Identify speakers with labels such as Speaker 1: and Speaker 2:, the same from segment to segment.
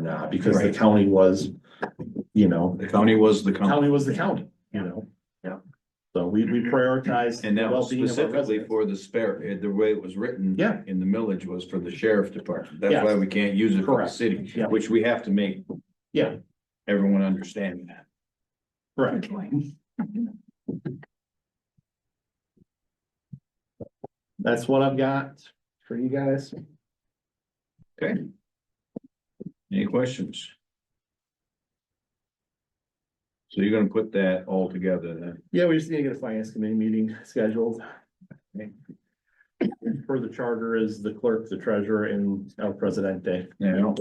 Speaker 1: not, because the
Speaker 2: Right.
Speaker 1: county was, you know,
Speaker 2: The county was the county.
Speaker 1: county was the county, you know?
Speaker 3: Yeah.
Speaker 1: So we, we prioritized.
Speaker 2: Mm-hmm. And that was
Speaker 1: well-being of our
Speaker 2: specifically
Speaker 1: residents.
Speaker 2: for the spare, eh, the way it was written.
Speaker 1: Yeah.
Speaker 2: In the millage was for the sheriff department. That's
Speaker 1: Yes.
Speaker 2: why we can't use it for the
Speaker 1: Correct.
Speaker 2: city,
Speaker 1: Yeah.
Speaker 2: which we have to make.
Speaker 1: Yeah.
Speaker 2: Everyone understand that.
Speaker 1: Correct. That's what I've got for you guys.
Speaker 2: Any questions? So you're gonna put that all together then?
Speaker 1: Yeah, we just need to get a finance committee meeting scheduled. For the charter is the clerk, the treasurer and El Presidente.
Speaker 2: Yeah.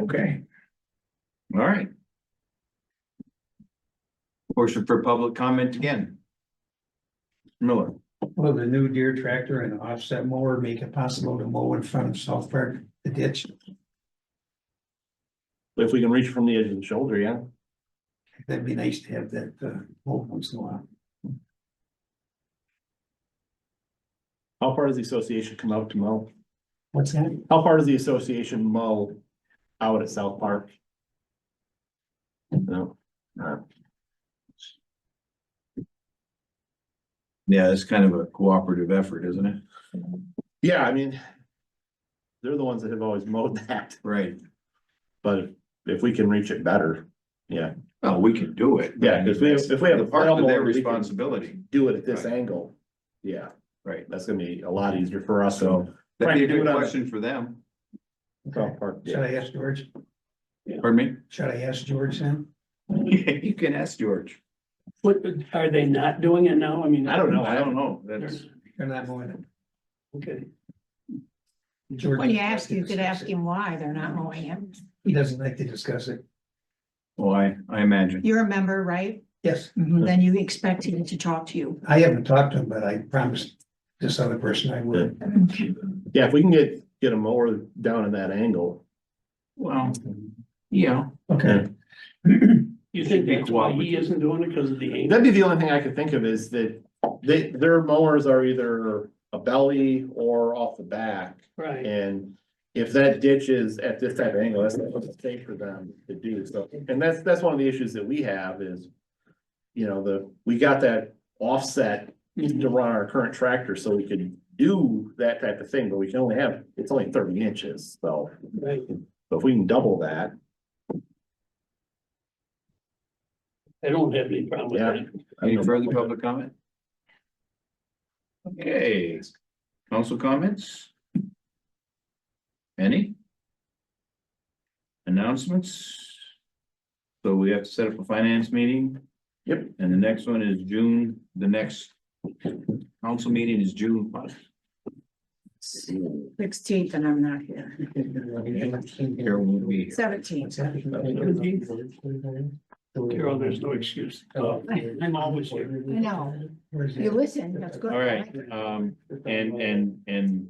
Speaker 2: Okay. All right. Portion for public comment again. Miller,
Speaker 4: Will the new deer tractor and offset mower make it possible to mow in front of South Park, the ditch?
Speaker 1: If we can reach from the edge of the shoulder, yeah.
Speaker 4: That'd be nice to have that, uh, mow once in a while.
Speaker 1: How far does the association come out to mow?
Speaker 4: What's that?
Speaker 1: How far does the association mow out at South Park? No,
Speaker 2: yeah, it's kind of a cooperative effort, isn't it?
Speaker 1: yeah, I mean. They're the ones that have always mowed that,
Speaker 2: Right.
Speaker 1: but if we can reach it better, yeah,
Speaker 2: Well, we can do it.
Speaker 1: Yeah, if we- if we have a
Speaker 2: The part of their
Speaker 1: lawnmower, we can-
Speaker 2: responsibility,
Speaker 1: do it at this
Speaker 2: Right.
Speaker 1: angle. Yeah,
Speaker 2: right,
Speaker 1: that's gonna be a lot easier for us, so.
Speaker 2: so that'd be a
Speaker 1: Frank, do
Speaker 2: good
Speaker 1: it on-
Speaker 2: question for them,
Speaker 1: South Park,
Speaker 4: Should
Speaker 1: yeah.
Speaker 4: I ask George?
Speaker 2: pardon
Speaker 4: Should I ask George then?
Speaker 2: me? You can ask George,
Speaker 5: What, are they not doing it now? I mean.
Speaker 1: I don't know,
Speaker 2: I don't know, that's,
Speaker 4: They're not mowing it.
Speaker 5: Okay,
Speaker 4: George-
Speaker 3: When you ask, you could ask him Mm-hmm. why they're not mowing it.
Speaker 4: He doesn't like to discuss it.
Speaker 2: well, I, I imagine,
Speaker 3: You're a member, right?
Speaker 4: Yes,
Speaker 3: Then you expect him to talk to you.
Speaker 4: I haven't talked to him, but I promised this other person I would.
Speaker 3: Mm-hmm.
Speaker 1: Yeah, if we can get, get a mower down in that angle,
Speaker 2: well, yeah.
Speaker 4: Okay.
Speaker 5: you
Speaker 2: Should
Speaker 5: think
Speaker 2: be
Speaker 5: that's why he
Speaker 2: cooperative.
Speaker 5: isn't doing it because of the angle?
Speaker 1: that'd be the only thing I could think of is that. They, their mowers are either a belly or off the back.
Speaker 5: Right,
Speaker 1: And if that ditch is at this type of angle, that's not what's safe for them to do, so, and that's, that's one of the issues that we have is. You know, the, we got that offset
Speaker 5: Mm-hmm.
Speaker 1: to run our current tractor, so we could do that type of thing, but we can only have, it's only thirty inches, so.
Speaker 5: right.
Speaker 1: But if we can double that,
Speaker 5: I don't have any problem with that.
Speaker 2: Any further public comment? Okay, council comments? Any? Announcements? So we have to set up a finance meeting?
Speaker 1: Yep.
Speaker 2: And the next one is June, the next council meeting is June. what?
Speaker 3: Sixteenth and I'm not here.
Speaker 2: Here won't be here.
Speaker 3: Seventeenth.
Speaker 5: Carol, there's no excuse. Uh, I'm always here.
Speaker 3: I know. You listen, that's good.
Speaker 2: All right, um, and, and, and